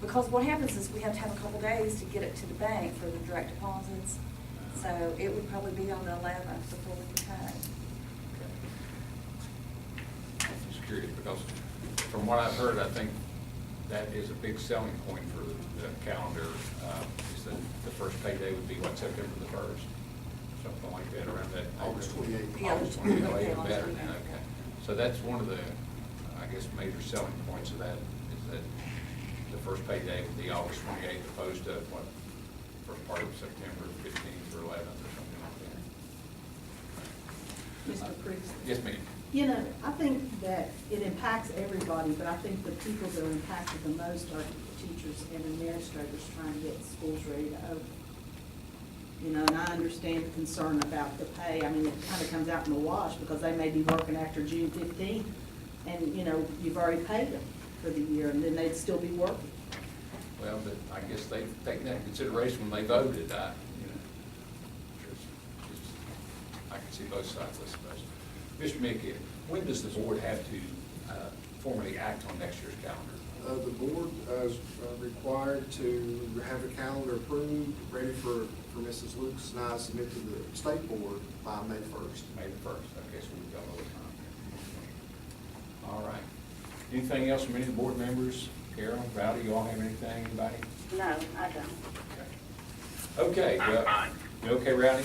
Because what happens is we have to have a couple days to get it to the bank for the direct deposits. So it would probably be on the eleventh before we could cut. I'm Just curious, because from what I've heard, I think that is a big selling point for the calendar, uh, is that the first payday would be, what, September the first? Something like that, around that. August 28th. Yeah. August twenty-eighth, Okay, even August better, 28th. okay. So that's one of the, I guess, major selling points of that, is that the first payday would be August twenty-eighth, opposed to, what, first part of September fifteenth or eleventh or something like that. Mr. Priest? Yes, ma'am. You know, I think that it impacts everybody, but I think the people that are impacted the most are the teachers and administrators trying to get schools ready to open. You know, and I understand the concern about the pay. I mean, it kind of comes out in the wash because they may be working after June fifteenth and, you know, you've already paid them for the year and then they'd still be working. Well, but I guess they take that into consideration when they voted, I, you know. just- just- I can see both sides, I suppose. Mr. Mickey, when does the board have to uh, formally act on next year's calendar? Uh, The board uh, is uh, required to have a calendar approved, ready for, for Mrs. Lucas and I submit to the state board by May first. May the first, okay, so we've got a little time. All right. Anything else from any of the board members? Carol, Rowdy, you all have anything, anybody? No, I don't. Okay. Okay, I'm well, fine. you okay, Rowdy?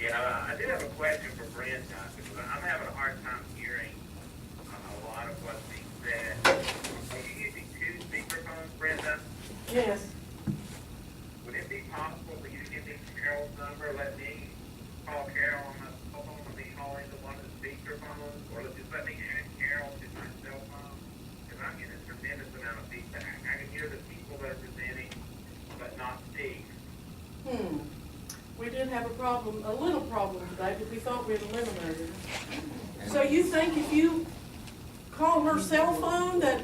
Yeah, I do have a question for Brent, uh, because I'm having a hard time hearing uh, a lot of what's being said. Are you using two speakerphones, Brenda? Yes. Would it be possible for you to give me Carol's number, let me call Carol on the phone, and be calling the one of the speakerphones, or just let me add Carol to my cell phone? Because I'm getting a tremendous amount of feedback. I can hear the people that are presenting, but not speak. Hmm. We did have a problem, a little problem today, but we thought we had eliminated it. So you think if you call her cell phone that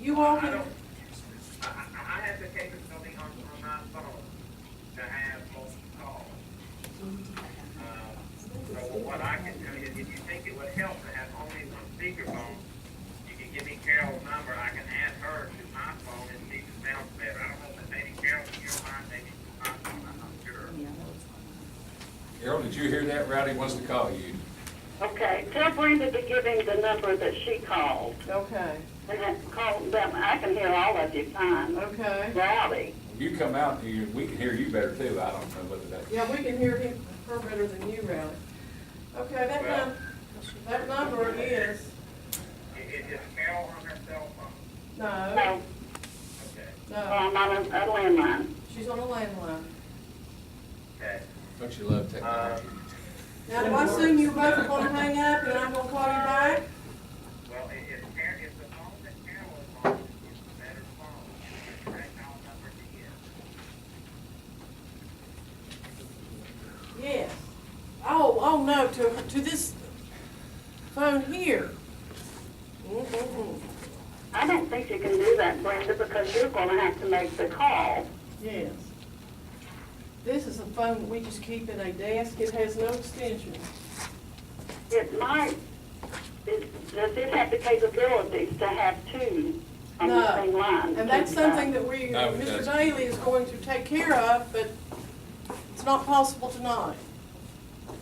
you all I can? don't, I, I I have the capability on, on my phone to have multiple calls. Um, So what I can tell you, is if you think it would help to have only one speakerphone, you can give me Carol's number, I can add her to my phone and see if it sounds better. I don't know if maybe Carol's in your mind, maybe it's not, I'm not sure. Carol, did you hear that? Rowdy wants to call you. Okay, tell Brenda to give him the number that she called. Okay, And then call them, I can hear all of you fine. okay. Rowdy. You come out, you, we can hear you better too, I don't know whether that. Yeah, we can hear him, her better than you, Rowdy. Okay, that num, that number is, Is, is Carol on her cell phone? no, No, Okay, no, I'm on a a landline. she's on a landline. okay. Don't you love technology? Now, do I assume you're both are gonna hang up and I'm gonna call you back? Well, it, it's, Car- it's the phone that Carol is on, it's the better phone, it's the direct dial number to give. Yes. Oh, oh, no, to, to this phone here. Mm-mm-mm. I don't think you can do that, Brenda, because you're gonna have to make the call. Yes. This is a phone that we just keep in a desk, it has no extension. It might, it- does it have the capabilities to have two on the No. same line? And that's something that we, No, it Mr. doesn't. Daly is going to take care of, but it's not possible tonight.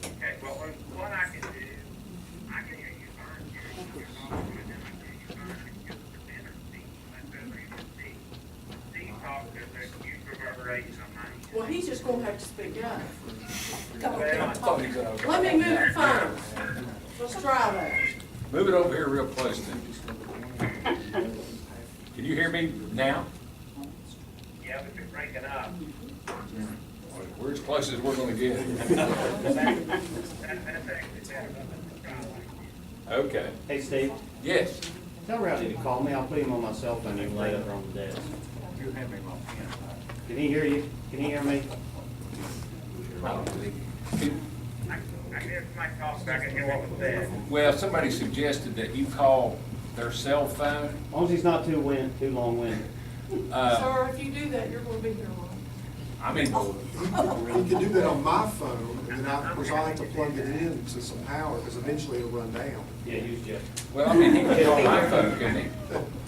Okay, well, what what I can do, I can hear you fine, Gary, you're talking, and then I can hear you fine, I can the better seat, that's better, you can see. Steve talks, there's a huge reverberation on my end. Well, he's just gonna have to speak up. Come on. Well, I thought he said I was- Let me move the phone. Let's try that. Move it over here real close then. Can you hear me now? Yeah, but you're breaking up. We're as close as we're gonna get. That, that's actually better, let's try like this. Okay, Hey, Steve, yes. tell Rowdy to call me. I'll put him on my cell phone and lay it on the desk. You have me on Can he hear you? Can he hear me? I don't believe you. I, I can hear my talk, I can hear what was said. Well, somebody suggested that you call their cell phone. As long as he's not too win, too long-winded. Uh, Sir, if you do that, you're gonna be here a while. I mean, You can do that on my phone, and then I, of course, I have to plug it in to some power, because eventually it'll run down. Yeah, use Jeff. well, I mean, he can call my phone, couldn't he?